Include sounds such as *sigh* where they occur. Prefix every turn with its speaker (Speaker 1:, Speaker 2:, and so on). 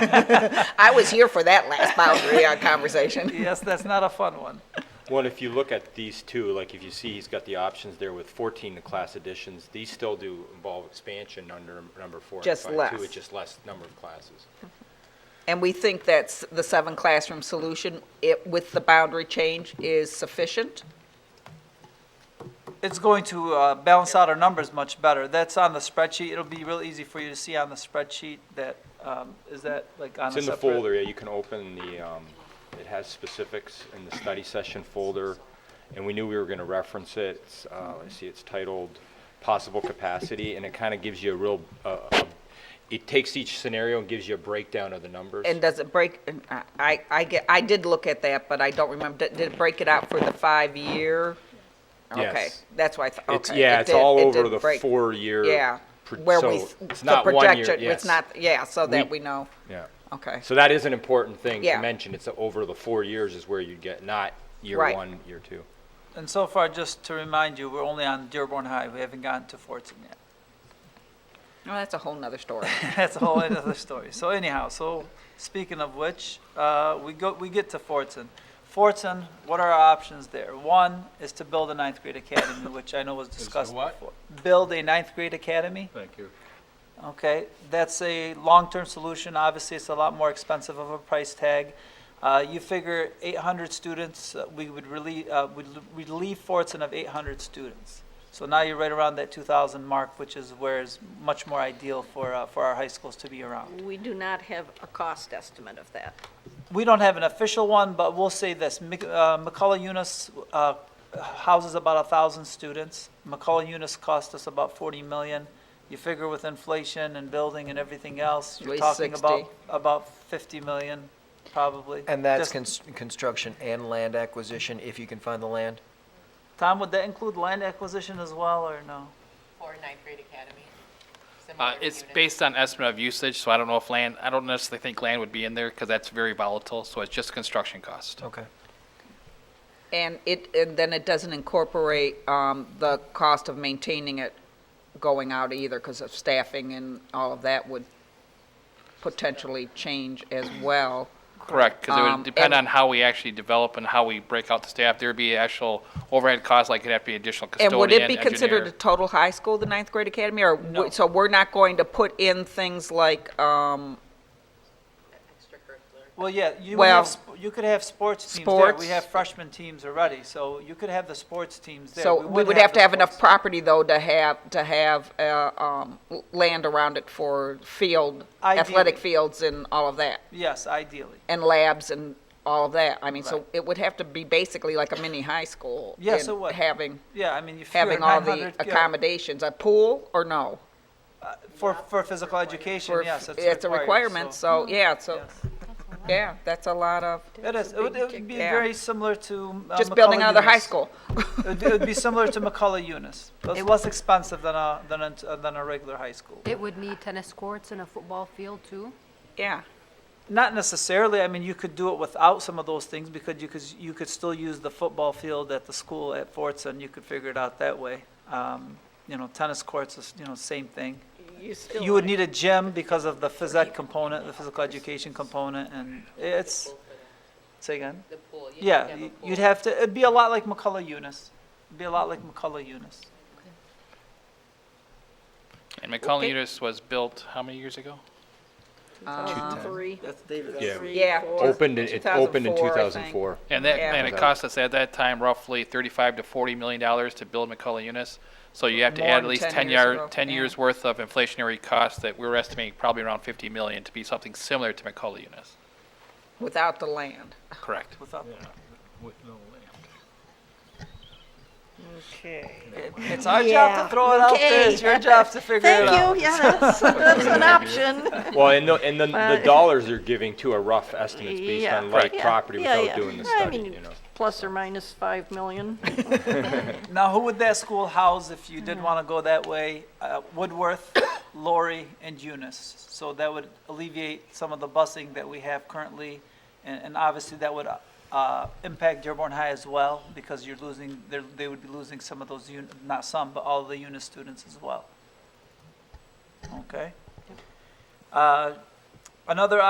Speaker 1: I was here for that last boundary uh, conversation.
Speaker 2: Yes, that's not a fun one.
Speaker 3: Well, and if you look at these two, like if you see, he's got the options there with 14 class additions. These still do involve expansion under number four and
Speaker 1: Just
Speaker 3: five,
Speaker 1: less.
Speaker 3: too. It's just less number of classes.
Speaker 1: And we think that's the seven classroom solution it, with the boundary change is sufficient?
Speaker 2: It's going to uh, balance out our numbers much better. That's on the spreadsheet. It'll be real easy for you to see on the spreadsheet that, um, is that like on a
Speaker 3: It's
Speaker 2: separate?
Speaker 3: in the folder, yeah, you can open the, um, it has specifics in the study session folder, and we knew we were gonna reference it. It's, uh, let's see, it's titled Possible Capacity, and it kinda gives you a real, uh, uh, it takes each scenario and gives you a breakdown of the numbers.
Speaker 1: And does it break, I- I, I get, I did look at that, but I don't remember, did did it break it out for the five-year? Okay,
Speaker 3: Yes.
Speaker 1: that's why I thought,
Speaker 3: It's,
Speaker 1: okay.
Speaker 3: yeah,
Speaker 1: it
Speaker 3: it's
Speaker 1: did-
Speaker 3: all
Speaker 1: it
Speaker 3: over
Speaker 1: did
Speaker 3: the
Speaker 1: break-
Speaker 3: four-year.
Speaker 1: Yeah,
Speaker 3: pr-
Speaker 1: where we,
Speaker 3: so
Speaker 1: s-
Speaker 3: It's
Speaker 1: the
Speaker 3: not one year,
Speaker 1: projection, it's
Speaker 3: yes.
Speaker 1: not, yeah, so that we
Speaker 3: We-
Speaker 1: know,
Speaker 3: Yeah.
Speaker 1: okay.
Speaker 3: So that is an important thing
Speaker 1: Yeah.
Speaker 3: to mention. It's over the four years is where you'd get, not year
Speaker 1: Right.
Speaker 3: one, year two.
Speaker 2: And so far, just to remind you, we're only on Dearborn High. We haven't gotten to Fortin yet. *laughs*
Speaker 1: No, Oh, that's a whole nother story.
Speaker 2: That's a whole other story. So anyhow, so speaking of which, uh, we go, we get to Fortin. Fortin, what are our options there? One is to build a ninth grade academy, which I know was discussed
Speaker 4: what?
Speaker 2: before. Build a ninth grade academy.
Speaker 4: Thank you.
Speaker 2: Okay, that's a long-term solution. Obviously, it's a lot more expensive of a price tag. Uh, you figure 800 students, uh, we would relieve, uh, would l- relieve Fortson of 800 students. So now you're right around that 2,000 mark, which is where is much more ideal for, uh, for our high schools to be around.
Speaker 5: We do not have a cost estimate of that.
Speaker 2: We don't have an official one, but we'll say this, Mc- uh, McCullough Unis, uh, houses about a thousand students. McCullough Unis cost us about forty million. You figure with inflation and building and everything else, you're
Speaker 1: least
Speaker 2: talking
Speaker 1: 60.
Speaker 2: about, about fifty million, probably.
Speaker 6: And
Speaker 2: Just-
Speaker 6: that's cons- construction and land acquisition, if you can find the land?
Speaker 2: Tom, would that include land acquisition as well, or no?
Speaker 7: for ninth grade academy?
Speaker 8: Uh,
Speaker 7: similar to
Speaker 8: It's
Speaker 7: Unit?
Speaker 8: based on estimate of usage, so I don't know if land, I don't necessarily think land would be in there because that's very volatile, so it's just construction cost.
Speaker 1: Oh,
Speaker 6: Okay.
Speaker 1: And it, and then it doesn't incorporate um, the cost of maintaining it going out either because of staffing and all of that would potentially change as well.
Speaker 8: Correct, because it
Speaker 1: Um,
Speaker 8: would depend
Speaker 1: and-
Speaker 8: on how we actually develop and how we break out the staff. There'd be actual overhead costs, like it'd have to be additional
Speaker 1: And would it
Speaker 8: custodian,
Speaker 1: be considered a
Speaker 8: engineer.
Speaker 1: total high school, the ninth grade academy? Or, w-
Speaker 2: No.
Speaker 1: so we're not going to put in things like um,
Speaker 7: Extracurricular.
Speaker 2: Well, yeah, you would
Speaker 1: Well-
Speaker 2: have, sp- you could have sports teams there.
Speaker 1: Sports.
Speaker 2: We have freshman teams already, so you could have the sports teams there.
Speaker 1: So we would have
Speaker 2: the
Speaker 1: to have enough
Speaker 2: sports-
Speaker 1: property, though, to have, to have uh, um, l- land around it for field, athletic
Speaker 2: Ideally.
Speaker 1: fields and all of that,
Speaker 2: Yes, ideally.
Speaker 1: and labs and all of that. I mean, so
Speaker 2: Right.
Speaker 1: it would have to be basically like a mini high school.
Speaker 2: Yes,
Speaker 1: in
Speaker 2: it would.
Speaker 1: Having,
Speaker 2: Yeah, I mean, you figure
Speaker 1: having all the
Speaker 2: 900, yeah.
Speaker 1: accommodations, a pool or no?
Speaker 2: Uh, For, for physical education,
Speaker 1: For-
Speaker 2: yes, it's required.
Speaker 1: It's a requirement,
Speaker 5: Mm-hmm.
Speaker 1: so, yeah, so,
Speaker 2: yes.
Speaker 1: yeah, that's a lot of,
Speaker 2: It is, it would, it would be
Speaker 1: Yeah.
Speaker 2: very similar to.
Speaker 5: Um,
Speaker 2: uh,
Speaker 1: just building
Speaker 2: McCullough
Speaker 1: another high
Speaker 2: Eunice.
Speaker 1: school.
Speaker 2: It would- It would be similar to
Speaker 1: *laughs*
Speaker 2: McCullough Eunice. It's less expensive than a, than a, than a regular high school.
Speaker 9: It would need tennis courts and a football field too.
Speaker 1: Yeah,
Speaker 2: Not necessarily, I mean, you could do it without some of those things because you could, you could still use the football field at the school at Fortson. You could figure it out that way. Um, You know, tennis courts is, you know, same thing.
Speaker 5: You still
Speaker 2: You would need a gym because of the phys ed component, the physical education component, and it's, say again?
Speaker 7: The pool. you'd
Speaker 2: Yeah,
Speaker 7: have to have a
Speaker 2: y-
Speaker 7: pool.
Speaker 2: you'd have to, it'd be a lot like McCullough Eunice. It'd be a lot like McCullough Eunice.
Speaker 8: And McCollum
Speaker 1: Okay.
Speaker 8: Unis was built how many years ago?
Speaker 5: uh, three,
Speaker 2: That's David.
Speaker 3: Yeah.
Speaker 5: three,
Speaker 1: Yeah.
Speaker 5: four.
Speaker 3: Opened, in- it opened in
Speaker 1: 2004, I think.
Speaker 3: 2004.
Speaker 8: And that,
Speaker 1: Yeah.
Speaker 8: and it cost us at that time roughly thirty-five to forty million dollars to build McCullough Unis. So you have to
Speaker 1: More
Speaker 8: add
Speaker 1: than
Speaker 8: at least
Speaker 1: 10
Speaker 8: ten
Speaker 1: years
Speaker 8: yard,
Speaker 1: ago,
Speaker 8: ten
Speaker 1: yeah.
Speaker 8: years worth of inflationary costs that we were estimating probably around fifty million to be something similar to McCullough Unis.
Speaker 1: without the land.
Speaker 8: Correct.
Speaker 2: Without-
Speaker 4: With no land.
Speaker 2: It's our job to throw it out there, it's your job to figure it out.
Speaker 5: Thank you, yeah, that's, that's
Speaker 3: *laughs*
Speaker 5: an option.
Speaker 3: Well, and the, and the,
Speaker 1: *laughs*
Speaker 3: the
Speaker 5: Well,
Speaker 3: dollars they're giving to are rough estimates based
Speaker 5: Yeah,
Speaker 3: on like
Speaker 5: yeah,
Speaker 3: property
Speaker 5: yeah,
Speaker 3: without
Speaker 5: yeah.
Speaker 3: doing the
Speaker 5: I
Speaker 3: study,
Speaker 5: mean,
Speaker 3: you know?
Speaker 5: Plus or minus five million.
Speaker 2: Now, who would that school house if you did want to go that way? Uh, Woodworth, Lori, and Eunice. So that would alleviate some of the busing that we have currently, and, and obviously that would uh, impact Dearborn High as well, because you're losing, they're- they would be losing some of those, uni- not some, but all of the Eunice students as well. Okay? Uh, Another